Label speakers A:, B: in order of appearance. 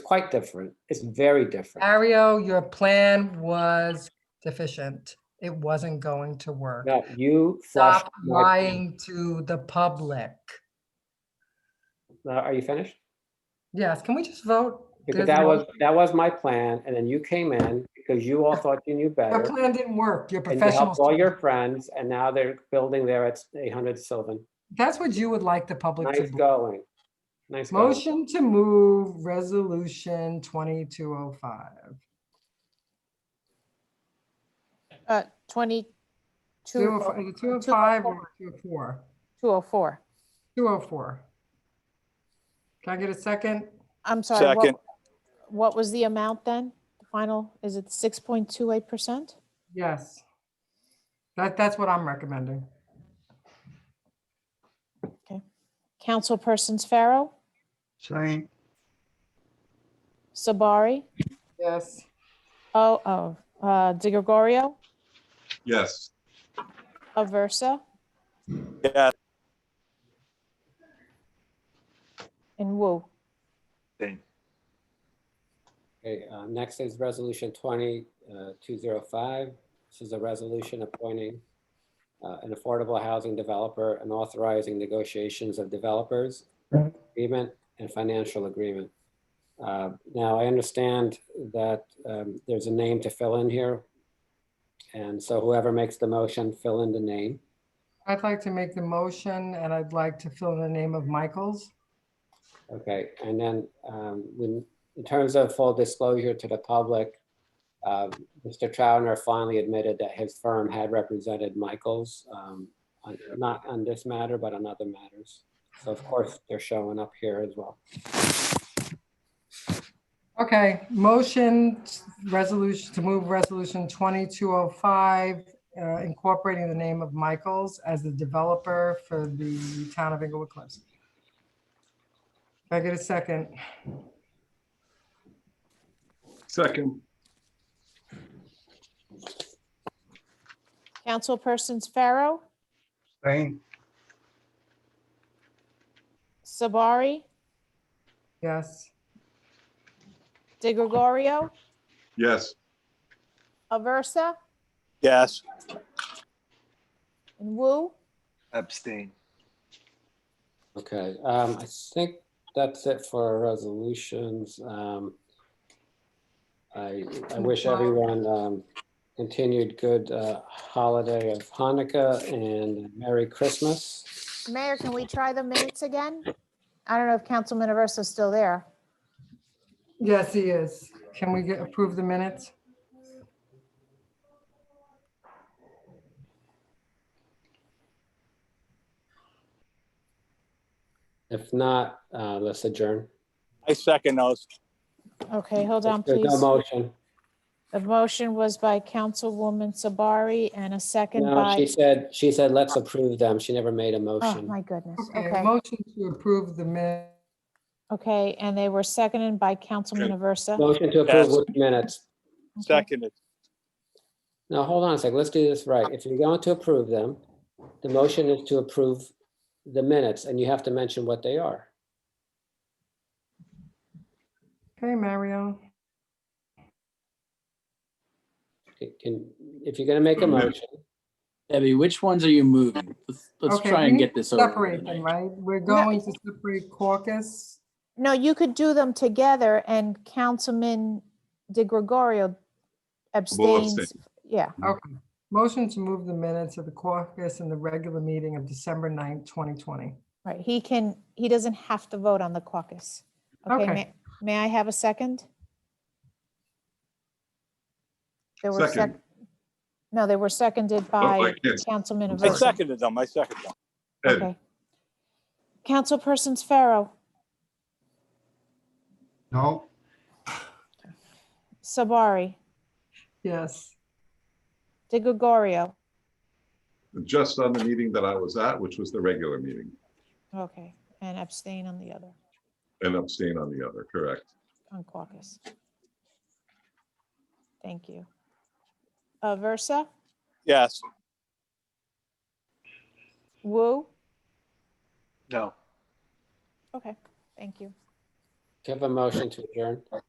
A: quite different. It's very different.
B: Mario, your plan was deficient. It wasn't going to work.
A: No, you flushed.
B: Stop
A: my-
B: lying to the public.
A: Uh, Are you finished?
B: Yes, can we just vote?
A: Because
B: There's
A: that
B: no-
A: was, that was my plan, and then you came in because you all thought you knew
B: Your
A: better.
B: plan didn't work. Your
A: And you helped all
B: professional.
A: your friends, and now they're building there at 800 Sylvan.
B: That's what you would like the public to
A: Nice
B: do.
A: going. Nice going.
B: Motion to move resolution 2205.
C: Uh, 22,
B: Two oh fi- is it 205 or 204?
C: 204.
B: 204. Can I get a second?
C: I'm sorry. what-
D: Second,
C: What was the amount then? The final, is it 6.28%?
B: Yes. That, that's what I'm recommending.
C: Councilpersons Pharaoh,
E: Same,
C: Sabari,
B: Yes.
C: oh, oh, uh, De Gregorio,
F: yes,
C: Aversa,
D: yes.
C: and Wu.
A: Okay, uh, next is Resolution uh, 20205. This is a resolution appointing uh, an affordable housing developer and authorizing negotiations of developers, agreement, and financial agreement. Uh, Now, I understand that um, there's a name to fill in here. And so whoever makes the motion, fill in the name.
B: I'd like to make the motion and I'd like to fill in the name of Michaels.
A: Okay, and then um, when, in terms of full disclosure to the public, uh, Mr. Trauner finally admitted that his firm had represented Michaels, um, on- not on this matter, but on other matters. So of course, they're showing up here as well.
B: Okay, motion, resolution, to move resolution 2205, uh, incorporating the name of Michaels as the developer for the town of Inglewood Cliffs. Can I get a second?
F: second,
C: Councilpersons Pharaoh,
E: same,
C: Sabari,
B: Yes.
C: De Gregorio,
F: yes,
C: Aversa,
D: Yes,
C: and Wu.
G: Abstain.
A: Okay, um, I think that's it for our resolutions. Um, I, I wish everyone, um, continued good, uh, holiday of Hanukkah and Merry Christmas.
C: Mayor, can we try the minutes again? I don't know if Councilman Aversa is still there.
B: Yes, he is. Can we get, approve the minutes?
A: If not, uh, let's adjourn.
D: I second those.
C: Okay, hold on,
A: There's
C: please.
A: no motion.
C: The motion was by Councilwoman Sabari and a second
A: No, she
C: by,
A: said, she said, let's approve them. She never made a
C: oh,
A: motion.
C: my goodness.
B: Okay, motion to approve the minutes.
C: Okay, and they were seconded by Councilman Aversa.
A: Motion to approve
D: Yes.
A: with minutes.
C: Okay.
D: Seconded,
A: Now, hold on a sec. Let's do this right. If you're going to approve them, the motion is to approve the minutes and you have to mention what they are.
B: Okay, Mario.
A: Can- Can, if you're gonna make a motion,
H: Debbie, which ones are you moving? Let's, let's
B: Okay,
H: try
B: we
H: and
B: need
H: get this
B: to
H: over.
B: Separate
H: tonight.
B: them, right? We're going to separate caucus.
C: No, you could do them together and Councilman De Gregorio
F: Will abstain.
C: abstains. Yeah,
B: Okay. Motion to move the minutes of the caucus and the regular meeting of December 9th, 2020.
C: right. He can, he doesn't have to vote on the caucus. Okay,
B: Okay.
C: may- may I have a second? There were sec,
F: Second. Oh,
C: no, they were seconded
F: I
C: by
F: can't.
C: Councilman
D: I
C: Aversa.
D: seconded them, I seconded them.
F: Ed.
C: Okay. Councilpersons Pharaoh,
E: no,
C: Sabari,
B: Yes.
C: De Gregorio.
F: just on the meeting that I was at, which was the regular meeting,
C: Okay, and abstain on the other,
F: and abstain on the other, correct?
C: on caucus. Thank you. Uh, Aversa,
D: Yes,
C: Wu,
G: No.
C: okay, thank you.
A: Can I have a motion to adjourn?